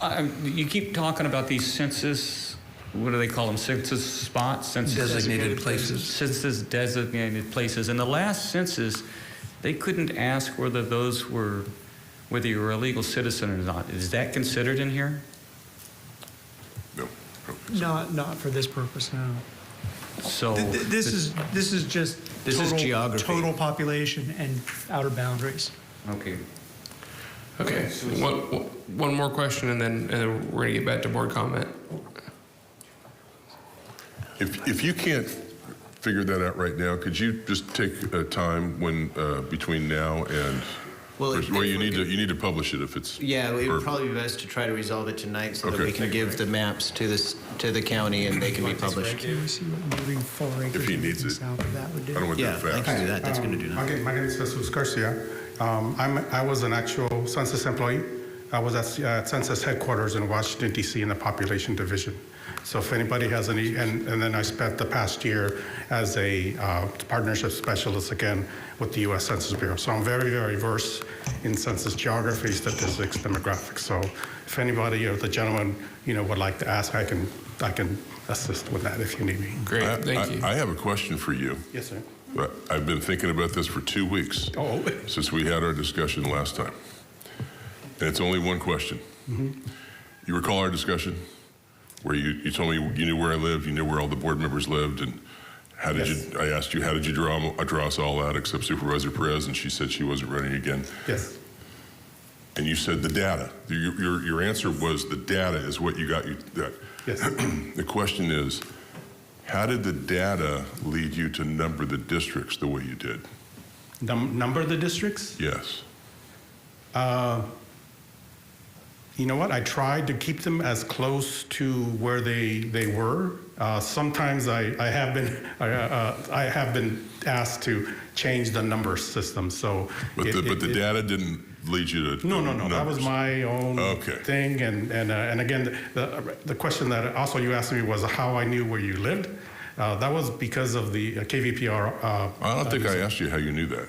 I- um, You keep talking about these census, what do they call them, census spots? Census- Designated places. Census designated places. In the last census, they couldn't ask whether those were, whether you were a legal citizen or not. Is that considered in here? No. no. Not, not for this purpose, no. Oh, So. Th- th- This is, this is just. This is total- geography. Total population and outer boundaries. Okay. Okay, one, one more question and then, and then we're gonna get back to board comment. If, if you can't figure that out right now, could you just take a time when, uh, between now and, Well, or- if- well, if you we need to, could- you need to publish it if it's. Yeah, it or- would probably be best to try to resolve it tonight so that Okay. we can give the maps to this, to the county and they can be published. Can we see what moving four acres. he and needs everything it. South of that would do. I don't want Yeah, that I fast. can do that, that's gonna do Okay, nothing. my name is Jesus Garcia. Um, I'm, I was an actual census employee. I was at uh, census headquarters in Washington DC in the population division. So if anybody has any, and, and then I spent the past year as a uh, partnership specialist again with the U.S. Census Bureau. So I'm very, very versed in census geography, statistics, demographics. So if anybody or the gentleman, you know, would like to ask, I can, I can assist with that if you need me. I- Great, thank I- you. I have a question for you. Yes, sir. Right. I've been thinking about this for two weeks Oh. since we had our discussion last time. And it's only one question. You recall our discussion where you, you told me you knew where I lived, you knew where all the board members lived, and how did you, I asked you, how did you draw, 'em- draw us all out except Supervisor Perez? And she said she wasn't running again. Yes. And you said the data. Your, your, your answer was the data is what you got you. That. Yes. the question is, how did the data lead you to number the districts the way you did? Num- number of the districts? Yes. You know what? I tried to keep them as close to where they they were. Uh, sometimes I, I have been I, uh, I have been asked to change the number system. So, But it- the, it- but the it- data didn't lead you to. No, no, no. That was numbers. my own Okay. thing. And and uh, and again, the the question that also you asked me was how I knew where you lived. Uh, that was because of the uh, KVPR. Uh, I don't think I asked you how you knew that.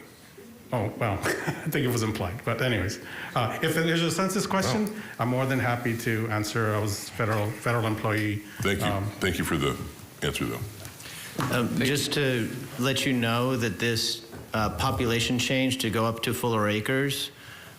Oh, well, I think it was implied, but anyways. Uh, If there's a census question, I'm more than happy to answer. I was federal, federal employee. Thank you. Um, Thank you for the answer, though. Um, Just to let you know that this uh, population change to go up to fuller acres,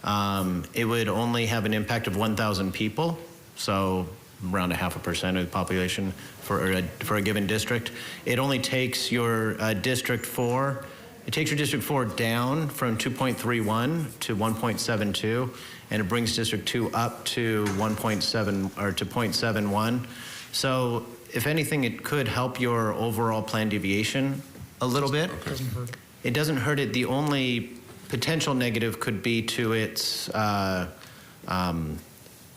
um, it would only have an impact of 1,000 people, so around a half a percent of the population for a, for a given district. It only takes your uh, District 4, it takes your District 4 down from 2.31 to 1.72, and it brings District 2 up to 1.7, or to 0.71. So if anything, it could help your overall plan deviation a little bit. It doesn't hurt it. The only potential negative could be to its, uh, um,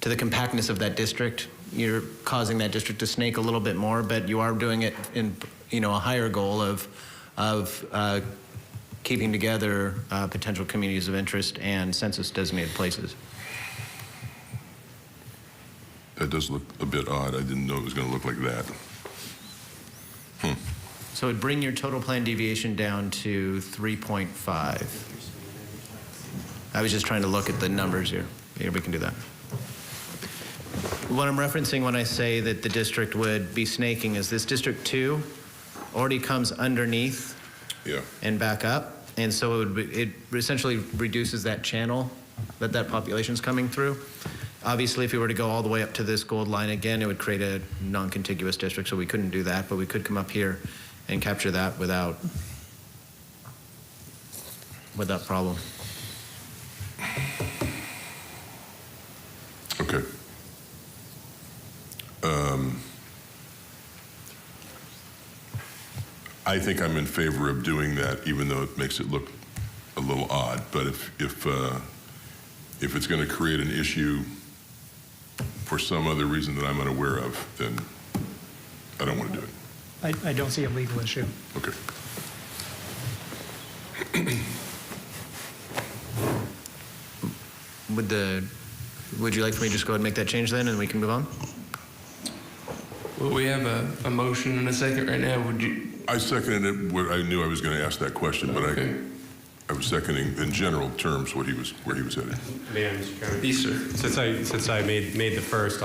to the compactness of that district. You're causing that district to snake a little bit more, but you are doing it in, you know, a higher goal of, of uh, keeping together uh, potential communities of interest and census designated places. That does look a bit odd. I didn't know it was going to look like that. So it'd bring your total plan deviation down to 3.5. I was just trying to look at the numbers here. Here, we can do that. What I'm referencing when I say that the district would be snaking is this District 2 already comes underneath Yeah. and back up, and so it would be, it essentially reduces that channel that that population's coming through. Obviously, if we were to go all the way up to this gold line again, it would create a non-contiguous district, so we couldn't do that, but we could come up here and capture that without without problem. Okay. Um, I think I'm in favor of doing that, even though it makes it look a little odd. But if if uh, if it's going to create an issue for some other reason that I'm unaware of, then I don't want to do it. I, I don't see a legal issue. Okay. Would the would you like for me to just go ahead and make that change then, and we can move on? Well, we have a, a motion and a second right now. Would you, I seconded it. What I knew I was going to ask that question, but Okay. I I was seconding in general terms what he was, where he was headed. Mayor, Mr. Chairman. Yes, sir. Since I, since I made, made the first,